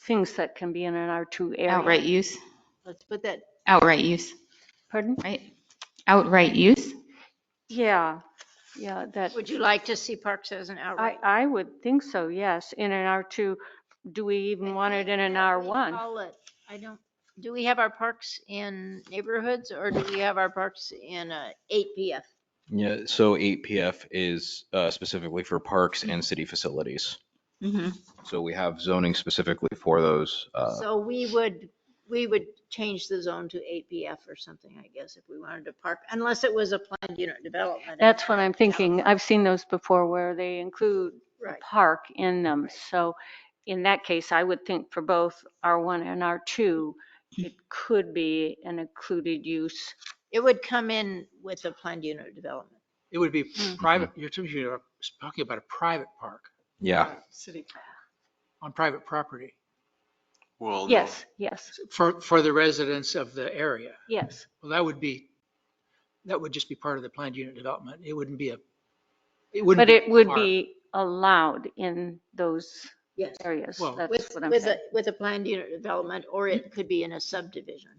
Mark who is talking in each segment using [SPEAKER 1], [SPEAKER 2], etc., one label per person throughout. [SPEAKER 1] things that can be in an R2 area.
[SPEAKER 2] Outright use,
[SPEAKER 3] Let's put that,
[SPEAKER 2] outright use,
[SPEAKER 1] Pardon?
[SPEAKER 2] right? Outright use?
[SPEAKER 1] Yeah, yeah, that,
[SPEAKER 3] would you like to see parks as an
[SPEAKER 1] I,
[SPEAKER 3] outright?
[SPEAKER 1] I would think so, yes, in an R2. Do we even want it in an R1?
[SPEAKER 3] Call it- I don't, do we have our parks in neighborhoods or do we have our parks in uh, 8 PF?
[SPEAKER 4] Yeah, so eight PF is uh, specifically for parks and city facilities.
[SPEAKER 2] Mhm.
[SPEAKER 4] So we have zoning specifically for those. uh,
[SPEAKER 3] Mm-hmm. So we would, we would change the zone to 8 PF or something, I guess, if we wanted to park, unless it was a planned unit development.
[SPEAKER 1] That's what I'm thinking. I've seen those before where they include
[SPEAKER 3] Right.
[SPEAKER 1] park in them. So in that case, I would think for both R1 and R2, it could be an included use.
[SPEAKER 3] It would come in with a planned unit development.
[SPEAKER 5] It would be
[SPEAKER 1] Hmm.
[SPEAKER 5] private, you're you're talking about a private park
[SPEAKER 4] Yeah,
[SPEAKER 6] City park.
[SPEAKER 5] on private property
[SPEAKER 7] Well, no.
[SPEAKER 1] Yes, yes,
[SPEAKER 5] for, for the residents of the area.
[SPEAKER 1] yes.
[SPEAKER 5] Well, that would be, that would just be part of the planned unit development. It wouldn't be a, it wouldn't.
[SPEAKER 1] But it would
[SPEAKER 5] park.
[SPEAKER 1] be allowed in those
[SPEAKER 3] Yes.
[SPEAKER 1] areas.
[SPEAKER 5] Well-
[SPEAKER 1] That's
[SPEAKER 3] With,
[SPEAKER 1] what I'm
[SPEAKER 3] with a,
[SPEAKER 1] saying.
[SPEAKER 3] with a planned unit development, or it could be in a subdivision.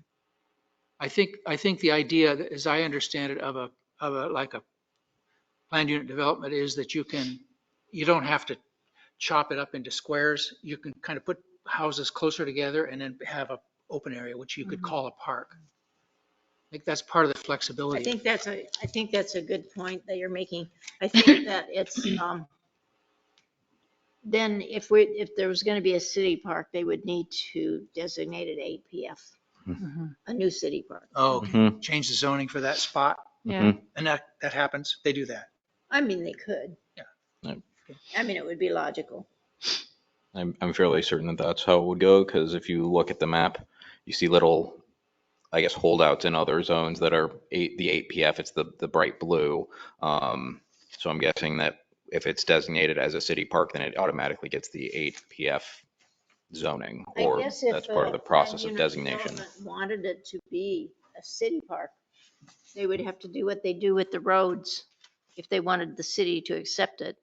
[SPEAKER 5] I think, I think the idea, as I understand it, of a, of a, like a planned unit development is that you can, you don't have to chop it up into squares. You can kind of put houses closer together and then have a open area, which you could
[SPEAKER 3] Mm-hmm.
[SPEAKER 5] call a park. I think that's part of the flexibility.
[SPEAKER 3] I think that's a, I think that's a good point that you're making. I think that it's, um, then if we, if there was gonna be a city park, they would need to designate it eight PF, a new city park.
[SPEAKER 5] Oh,
[SPEAKER 4] Mhm.
[SPEAKER 5] change the zoning for that spot,
[SPEAKER 1] Yeah.
[SPEAKER 5] and that, that happens, they do that.
[SPEAKER 3] I mean, they could.
[SPEAKER 5] Yeah.
[SPEAKER 4] Yep.
[SPEAKER 3] I mean, it would be logical.
[SPEAKER 4] I'm, I'm fairly certain that that's how it would go because if you look at the map, you see little, I guess, holdouts in other zones that are eight, the eight PF, it's the, the bright blue. Um, So I'm guessing that if it's designated as a city park, then it automatically gets the eight PF zoning
[SPEAKER 3] I
[SPEAKER 4] or
[SPEAKER 3] guess if uh,
[SPEAKER 4] that's part
[SPEAKER 3] a
[SPEAKER 4] of the process of
[SPEAKER 3] unit
[SPEAKER 4] designation.
[SPEAKER 3] development Wanted it to be a city park, they would have to do what they do with the roads if they wanted the city to accept it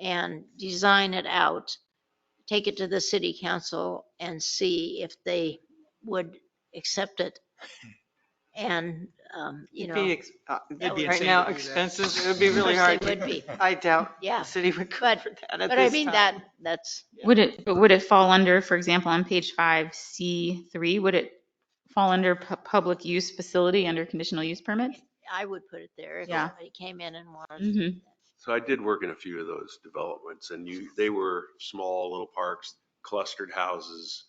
[SPEAKER 3] and design it out, take it to the city council and see if they would accept it. And, um, you
[SPEAKER 6] It'd
[SPEAKER 3] know.
[SPEAKER 6] be ex- uh,
[SPEAKER 3] that would-
[SPEAKER 6] Right
[SPEAKER 5] insane
[SPEAKER 6] now,
[SPEAKER 5] to do that.
[SPEAKER 6] expenses, it would be really
[SPEAKER 3] Of
[SPEAKER 6] hard.
[SPEAKER 3] course they would be.
[SPEAKER 6] I doubt
[SPEAKER 3] Yeah.
[SPEAKER 6] the city would go
[SPEAKER 3] But-
[SPEAKER 6] for that at
[SPEAKER 3] But I
[SPEAKER 6] this
[SPEAKER 3] mean,
[SPEAKER 6] time.
[SPEAKER 3] that, that's,
[SPEAKER 2] Would it, but would it fall under, for example, on page five, C three, would it fall under pu- public use facility under conditional use permit?
[SPEAKER 3] I would put it there if
[SPEAKER 2] Yeah.
[SPEAKER 3] somebody came in and wanted.
[SPEAKER 6] Mm-hmm.
[SPEAKER 2] hmm
[SPEAKER 7] So I did work in a few of those developments and you, they were small little parks, clustered houses,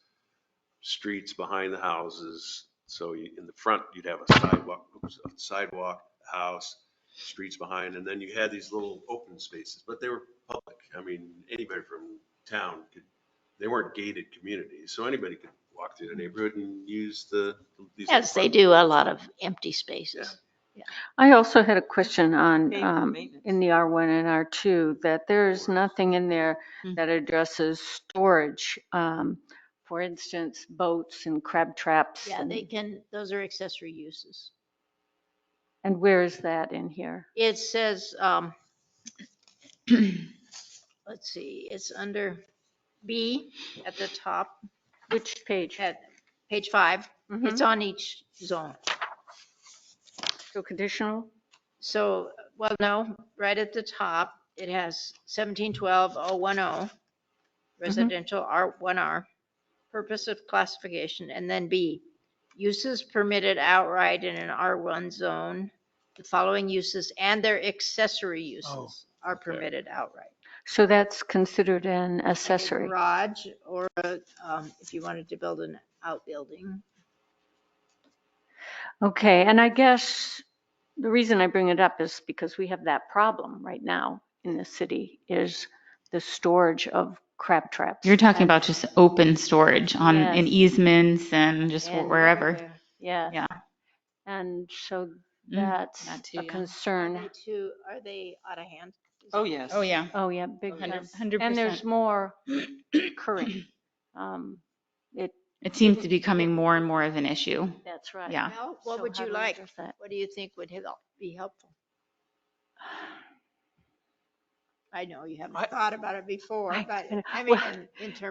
[SPEAKER 7] streets behind the houses. So you, in the front, you'd have a sidewalk, oops, a sidewalk, a house, streets behind, and then you had these little open spaces, but they were public. I mean, anybody from town could, they weren't gated communities, so anybody could walk through the neighborhood and use the. these little
[SPEAKER 3] Yes, they
[SPEAKER 7] parks.
[SPEAKER 3] do a lot of empty spaces.
[SPEAKER 1] I also had a question on,
[SPEAKER 6] Maintenance,
[SPEAKER 1] um,
[SPEAKER 6] maintenance.
[SPEAKER 1] in the R1 and R2, that there is
[SPEAKER 7] Storage.
[SPEAKER 1] nothing in there
[SPEAKER 2] Mm.
[SPEAKER 1] that addresses storage. um, For instance, boats and crab traps.
[SPEAKER 3] Yeah,
[SPEAKER 1] and-
[SPEAKER 3] they can, those are accessory uses.
[SPEAKER 1] And where is that in here?
[SPEAKER 3] It says, um, let's see, it's under B at the top,
[SPEAKER 1] Which page?
[SPEAKER 3] at page five.
[SPEAKER 1] Mhm.
[SPEAKER 3] It's on each zone.
[SPEAKER 1] So conditional?
[SPEAKER 3] So, well, no, right at the top, it has seventeen twelve oh one oh, residential R one R, purpose of classification, and then B, uses permitted outright in an R one zone. The following uses and their accessory uses are permitted outright.
[SPEAKER 1] So that's considered an
[SPEAKER 3] a
[SPEAKER 1] accessory.
[SPEAKER 3] Garage or, a, um, if you wanted to build an outbuilding.
[SPEAKER 1] Okay, and I guess the reason I bring it up is because we have that problem right now in the city is the storage of crab traps.
[SPEAKER 2] You're talking about just open storage on, in
[SPEAKER 1] Yes.
[SPEAKER 2] easements and just
[SPEAKER 1] And
[SPEAKER 2] wherever.
[SPEAKER 1] Yeah.
[SPEAKER 2] Yeah.
[SPEAKER 1] And so
[SPEAKER 2] Mm,
[SPEAKER 1] that's
[SPEAKER 2] that too,
[SPEAKER 1] a
[SPEAKER 2] yeah.
[SPEAKER 3] Are
[SPEAKER 1] concern.
[SPEAKER 3] they too, are they out of hand?
[SPEAKER 6] Oh, yes.
[SPEAKER 2] Oh, yeah.
[SPEAKER 1] Oh, yeah, big
[SPEAKER 2] Hundred-
[SPEAKER 1] time.
[SPEAKER 2] hundred
[SPEAKER 1] And there's
[SPEAKER 2] percent.
[SPEAKER 1] more current. Um, It,
[SPEAKER 2] It seems to be becoming more and more of an issue.
[SPEAKER 1] that's right.
[SPEAKER 2] Yeah.
[SPEAKER 3] Well, what
[SPEAKER 1] So
[SPEAKER 3] would
[SPEAKER 1] how
[SPEAKER 3] you
[SPEAKER 1] do we
[SPEAKER 3] like?
[SPEAKER 1] address that?
[SPEAKER 3] What do you think would help, be helpful? I know you haven't
[SPEAKER 5] I-
[SPEAKER 3] thought about it before,
[SPEAKER 1] I
[SPEAKER 3] but
[SPEAKER 1] know.
[SPEAKER 3] I mean,
[SPEAKER 1] Well-
[SPEAKER 3] in terms